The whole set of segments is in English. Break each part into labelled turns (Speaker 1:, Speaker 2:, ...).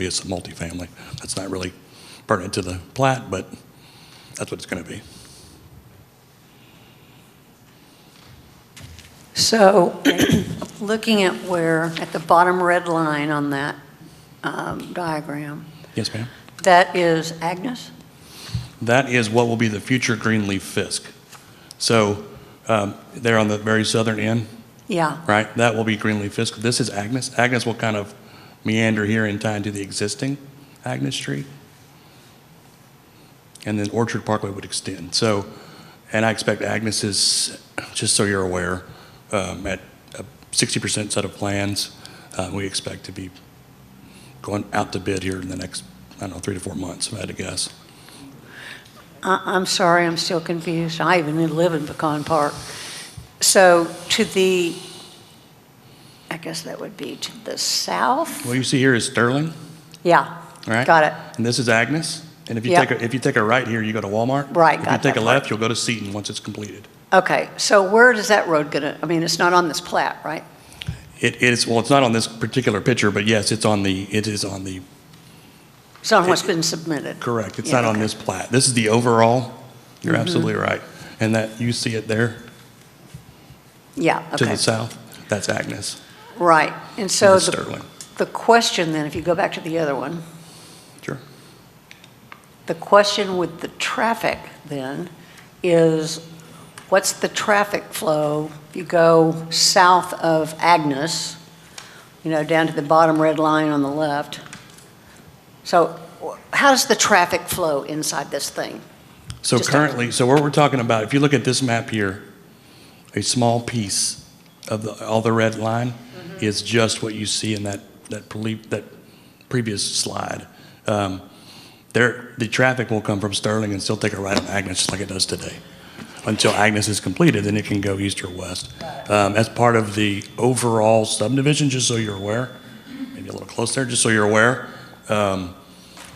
Speaker 1: be as multifamily. That's not really pertinent to the plat, but that's what it's going to be.
Speaker 2: So, looking at where, at the bottom red line on that um, diagram,
Speaker 1: Yes, ma'am?
Speaker 2: that is Agnes?
Speaker 1: That is what will be the future Greenleaf Fisk. So um, they're on the very southern end,
Speaker 2: Yeah,
Speaker 1: right? That will be Greenleaf Fisk. This is Agnes. Agnes will kind of meander here and tie into the existing Agnes Street. And then Orchard Parkway would extend. So, and I expect Agnes is, just so you're aware, um, at a 60% set of plans, uh, we expect to be going out to bid here in the next, I don't know, three to four months, if I had to guess.
Speaker 2: I- I'm sorry, I'm still confused. I even live in Pecan Park. So to the, I guess that would be to the south?
Speaker 1: What you see here is Sterling,
Speaker 2: Yeah,
Speaker 1: all right?
Speaker 2: got it.
Speaker 1: And this is Agnes. And if you
Speaker 2: Yeah.
Speaker 1: take, a if you take a right here, you go to Walmart.
Speaker 2: Right,
Speaker 1: If you
Speaker 2: got
Speaker 1: take a
Speaker 2: that part.
Speaker 1: left, you'll go to Seaton once it's completed.
Speaker 2: Okay, so where does that road gonna, I mean, it's not on this plat, right?
Speaker 1: It is, well, it's not on this particular picture, but yes, it's on the, it is on the,
Speaker 2: It's on what's been submitted.
Speaker 1: correct, it's
Speaker 2: Yeah,
Speaker 1: not on
Speaker 2: okay. Mm-hmm.
Speaker 1: this plat. This is the overall, you're absolutely right. And that, you see it there
Speaker 2: Yeah,
Speaker 1: to
Speaker 2: okay,
Speaker 1: the south, that's Agnes,
Speaker 2: right. And
Speaker 1: this
Speaker 2: so
Speaker 1: is
Speaker 2: the
Speaker 1: Sterling.
Speaker 2: the question then, if you go back to the other one,
Speaker 1: Sure.
Speaker 2: The question with the traffic then is, what's the traffic flow? If you go south of Agnes, you know, down to the bottom red line on the left. So wh- how does the traffic flow inside this thing?
Speaker 1: So
Speaker 2: Just-
Speaker 1: currently, so what we're talking about, if you look at this map here, a small piece of the, all the red line is just what you see in that, that, poli- that previous slide. Um, There, the traffic will come from Sterling and still take a right on Agnes, just like it does today. Until Agnes is completed, then it can go east or west. Um, As part of the overall subdivision, just so you're aware, maybe a little close there, just so you're aware, um,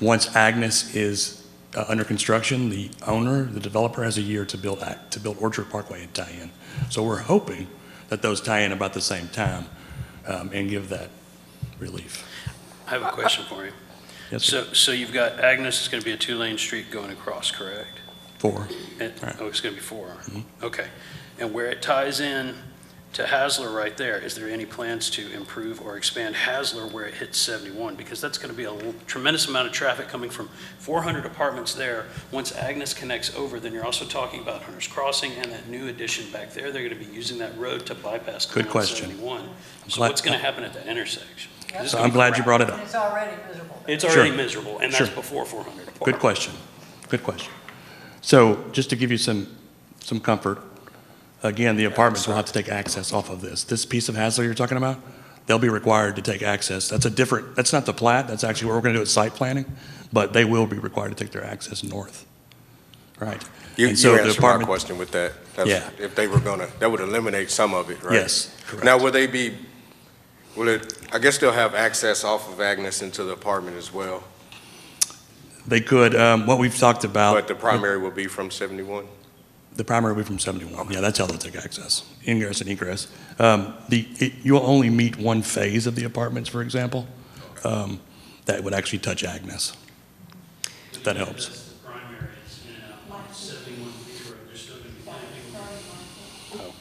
Speaker 1: once Agnes is uh, under construction, the owner, the developer has a year to build, Ac- to build Orchard Parkway and tie in. So we're hoping that those tie in about the same time um, and give that relief.
Speaker 3: I have a question for you.
Speaker 1: Yes, sir.
Speaker 3: So, so you've got Agnes is going to be a two-lane street going across, correct?
Speaker 1: Four.
Speaker 3: And-
Speaker 1: Right. Mm-hmm.
Speaker 3: Oh, it's going to be four. Okay. And where it ties in to Hasler right there, is there any plans to improve or expand Hasler where it hits 71? Because that's going to be a l- tremendous amount of traffic coming from 400 apartments there. Once Agnes connects over, then you're also talking about Hunter's Crossing and that new addition back there. They're going to be using that road to bypass
Speaker 1: Good
Speaker 3: Clinton
Speaker 1: question.
Speaker 3: 71. So
Speaker 1: glad-
Speaker 3: what's going to happen at that intersection? Is this
Speaker 1: So
Speaker 3: gonna
Speaker 1: I'm
Speaker 3: be
Speaker 1: glad you
Speaker 3: crowded?
Speaker 1: brought it up.
Speaker 2: It's already miserable.
Speaker 3: It's
Speaker 1: Sure.
Speaker 3: already miserable, and that's
Speaker 1: Sure.
Speaker 3: before 400 apart.
Speaker 1: Good question. Good question. So just to give you some, some comfort, again, the apartments will have to take access off of this. This piece of Hasler you're talking about, they'll be required to take access. That's a different, that's not the plat, that's actually what we're going to do at site planning, but they will be required to take their access north. Right?
Speaker 4: You,
Speaker 1: And so
Speaker 4: you
Speaker 1: the
Speaker 4: answered my
Speaker 1: apartment-
Speaker 4: question with that. That's-
Speaker 1: Yeah.
Speaker 4: If they were gonna, that would eliminate some of it, right?
Speaker 1: Yes, correct.
Speaker 4: Now, will they be, will it, I guess they'll have access off of Agnes into the apartment as well,
Speaker 1: They could, um, what we've talked about.
Speaker 4: but the primary will be from 71?
Speaker 1: The primary will be from 71. Yeah, that's how they'll take access, ingress and egress. Um, The, it- you'll only meet one phase of the apartments, for example, um, that would actually touch Agnes. If that helps.
Speaker 5: That's the primary, it's in and out, like 71 feet, or there's still going to be planting.
Speaker 3: Oh.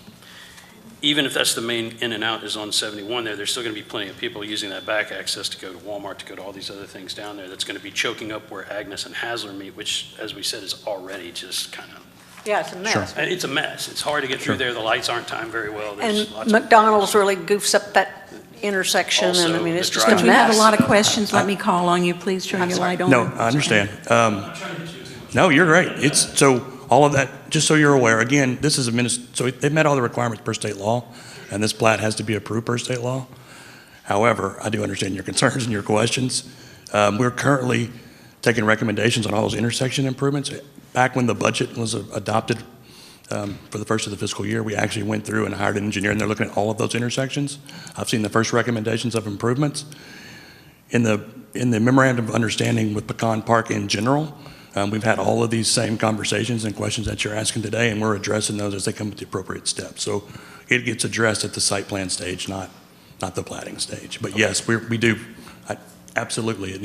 Speaker 3: Even if that's the main in and out is on 71 there, there's still going to be plenty of people using that back access to go to Walmart, to go to all these other things down there. That's going to be choking up where Agnes and Hasler meet, which, as we said, is already just kind of,
Speaker 2: Yeah, it's a mess.
Speaker 3: and it's a mess. It's hard to get
Speaker 1: Sure.
Speaker 3: through there. The lights aren't timed very well. There's
Speaker 2: And
Speaker 3: lots of-
Speaker 2: McDonald's really goofs up that intersection, and I
Speaker 3: Also,
Speaker 2: mean,
Speaker 3: the
Speaker 2: it's just a mess.
Speaker 3: drive-
Speaker 6: If you have a lot of questions, let me call on you. Please turn your light on.
Speaker 1: No, I understand. Um, No, you're right. It's, so, all of that, just so you're aware, again, this is a minis, so they've met all the requirements per state law, and this plat has to be approved per state law. However, I do understand your concerns and your questions. Um, We're currently taking recommendations on all those intersection improvements. Back when the budget was adopted um, for the first of the fiscal year, we actually went through and hired an engineer, and they're looking at all of those intersections. I've seen the first recommendations of improvements in the, in the memorandum of understanding with Pecan Park in general, um, we've had all of these same conversations and questions that you're asking today, and we're addressing those as they come with the appropriate steps. So it gets addressed at the site plan stage, not, not the plating stage. But yes, we, we do, I- absolutely, it